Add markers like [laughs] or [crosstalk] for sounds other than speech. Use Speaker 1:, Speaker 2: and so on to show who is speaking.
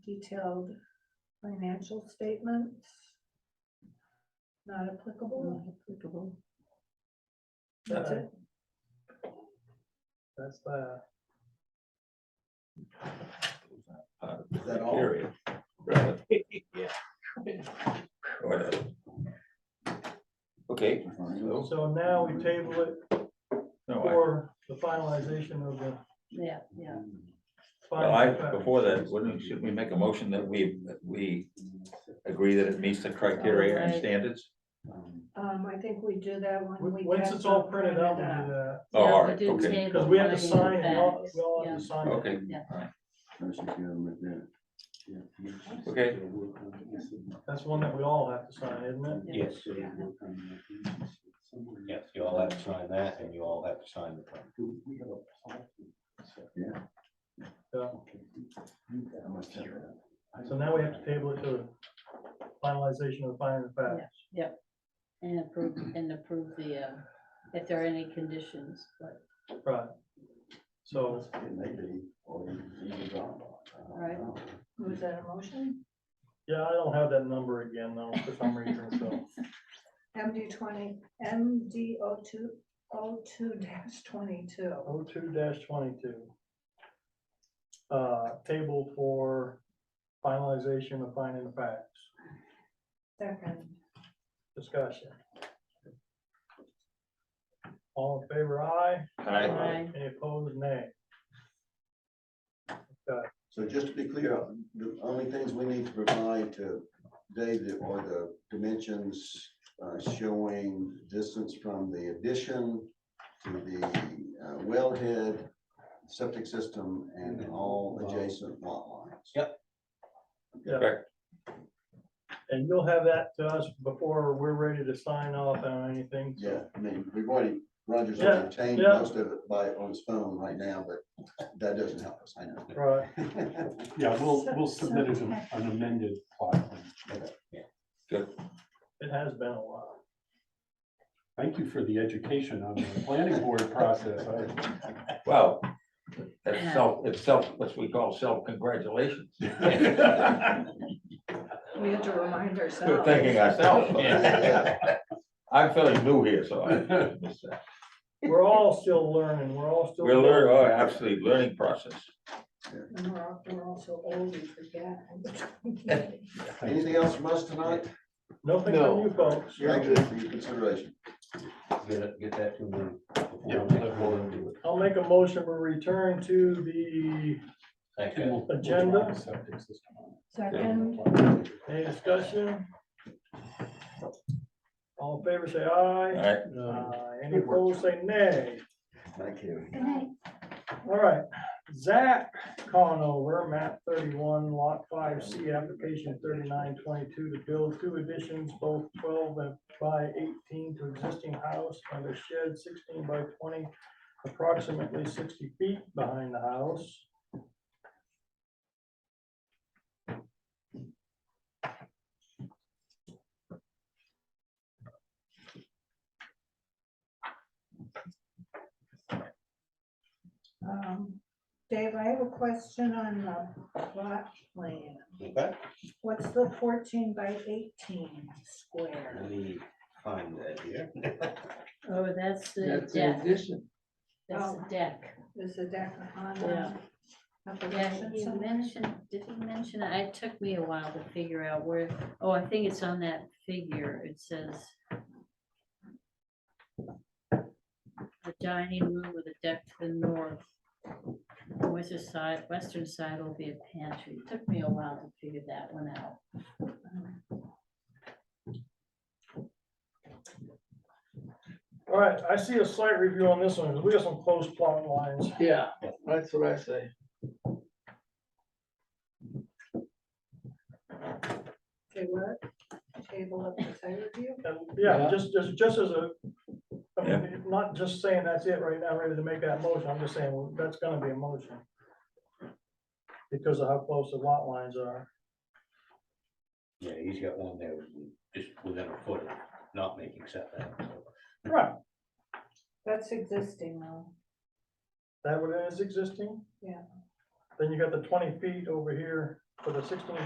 Speaker 1: detailed financial statements. Not applicable. Not applicable. That's it.
Speaker 2: That's the,
Speaker 3: Is that all?
Speaker 4: Right,
Speaker 3: [laughs]
Speaker 2: yeah,
Speaker 4: whatever. Okay,
Speaker 3: All
Speaker 2: so now we table it
Speaker 4: no, I,
Speaker 2: for the finalization of the.
Speaker 5: Yeah, yeah.
Speaker 4: well,
Speaker 2: final
Speaker 4: I,
Speaker 2: contract.
Speaker 4: before that, wouldn't, we- should we make a motion that we, that we agree that it meets the criteria and
Speaker 5: Right.
Speaker 4: standards?
Speaker 1: Um, I think we do that when we.
Speaker 2: Wh- Once
Speaker 1: get
Speaker 2: it's all
Speaker 1: the
Speaker 2: printed out, we
Speaker 1: printed
Speaker 2: do that,
Speaker 4: Oh,
Speaker 5: Yeah, we
Speaker 4: all right,
Speaker 5: did
Speaker 4: okay.
Speaker 5: table
Speaker 2: because we have to
Speaker 5: finding
Speaker 2: sign,
Speaker 5: of
Speaker 2: we all,
Speaker 5: facts,
Speaker 2: we all
Speaker 5: yeah.
Speaker 2: have to sign. it.
Speaker 4: Okay,
Speaker 5: Yeah.
Speaker 4: all right,
Speaker 3: Okay.
Speaker 2: That's one that we all have to sign, isn't it?
Speaker 6: Yes, yes, you all have to sign that and you all have to sign the plan.
Speaker 3: Yeah.
Speaker 2: So- So now we have to table it to finalization of the final facts.
Speaker 5: And approve, and approve the, uh, if there are any conditions, but,
Speaker 2: Right. So
Speaker 1: out. Was that a motion?
Speaker 2: Yeah, I don't have that number again though, for some reason, so.
Speaker 1: MD twenty, MD O two, O two dash twenty-two.
Speaker 2: O two twenty-two. Uh, table for finalization of finding facts,
Speaker 1: Second.
Speaker 2: discussion. All in favor, aye.
Speaker 4: Aye.
Speaker 5: Aye.
Speaker 2: Any opposed, nay.
Speaker 3: So just to be clear, the only things we need to provide to David are the dimensions uh, showing distance from the addition to the uh, wellhead, septic system, and all adjacent lot lines.
Speaker 6: Yep.
Speaker 2: And you'll have that to us before we're ready to sign off on anything. so-
Speaker 3: Yeah, I mean, we've already, Roger's already changed
Speaker 2: yeah.
Speaker 3: most of it by, on his phone right now, but that doesn't help us, I know.
Speaker 2: Right,
Speaker 3: [laughs]
Speaker 7: Yeah, we'll,
Speaker 1: So-
Speaker 7: we'll
Speaker 1: so-
Speaker 7: submit it an an amended plot plan.
Speaker 2: it has been a while.
Speaker 7: Thank you for the education on the planning board process. I-
Speaker 4: Well, that's self, it's self, what we call self-congratulations.
Speaker 3: [laughs]
Speaker 1: We have to remind
Speaker 4: Good
Speaker 1: ourselves.
Speaker 4: thinking ourselves.
Speaker 3: Yeah.
Speaker 4: I'm feeling new here, so I.
Speaker 3: [laughs]
Speaker 2: We're all still learning, we're all still.
Speaker 4: We're learning, oh, absolutely, learning process.
Speaker 1: And we're, all- we're all so old, we forget.
Speaker 3: Anything else from us tonight?
Speaker 2: Nothing from you folks.
Speaker 3: Thank you for your consideration.
Speaker 6: Get, get that to them.
Speaker 7: Yeah, we'll let Laura do it.
Speaker 2: I'll make a motion to return to the,
Speaker 7: And we'll- we'll draw
Speaker 2: Agenda.
Speaker 7: the septic system.
Speaker 1: Second,
Speaker 2: any discussion? All in favor, say aye.
Speaker 4: Alright,
Speaker 2: Uh, Any opposed, say nay.
Speaker 3: Thank you.
Speaker 2: All right, Zach Conover, map thirty-one, lot five C, application thirty-nine twenty-two to build two additions, both twelve and by eighteen to existing house and a shed sixteen by twenty, approximately sixty feet behind the house.
Speaker 1: um, Dave, I have a question on the plot plan.
Speaker 6: Okay.
Speaker 1: What's the fourteen by eighteen square?
Speaker 6: Let me find that here.
Speaker 5: oh, that's the deck. That's the
Speaker 1: Oh.
Speaker 5: deck.
Speaker 1: Is the deck on
Speaker 5: Yeah.
Speaker 1: the Oh.
Speaker 5: Yeah,
Speaker 1: application?
Speaker 5: you
Speaker 1: somewhere?
Speaker 5: mentioned, did you mention, it It took me a while to figure out where, oh, I think it's on that figure, it says. The dining room with a deck to the north. Western side, western side will be a pantry, It took me a while to figure that one out.
Speaker 2: All right, I see a slight review on this one, 'cause we have some close plot lines.
Speaker 8: Yeah, that's what I say.
Speaker 1: Okay, what? Table of the site review?
Speaker 2: And yeah,
Speaker 8: Yeah.
Speaker 2: just, just, just as a, I mean, not just saying that's it right now, ready to make that motion, I'm just saying, well, that's gonna be a motion. Because of how close the lot lines are.
Speaker 6: Yeah, he's got one there, just within a foot, of not making setback. so.
Speaker 2: Right.
Speaker 1: That's existing though.
Speaker 2: That what is existing?
Speaker 1: Yeah.
Speaker 2: Then you got the twenty feet over here for the sixteen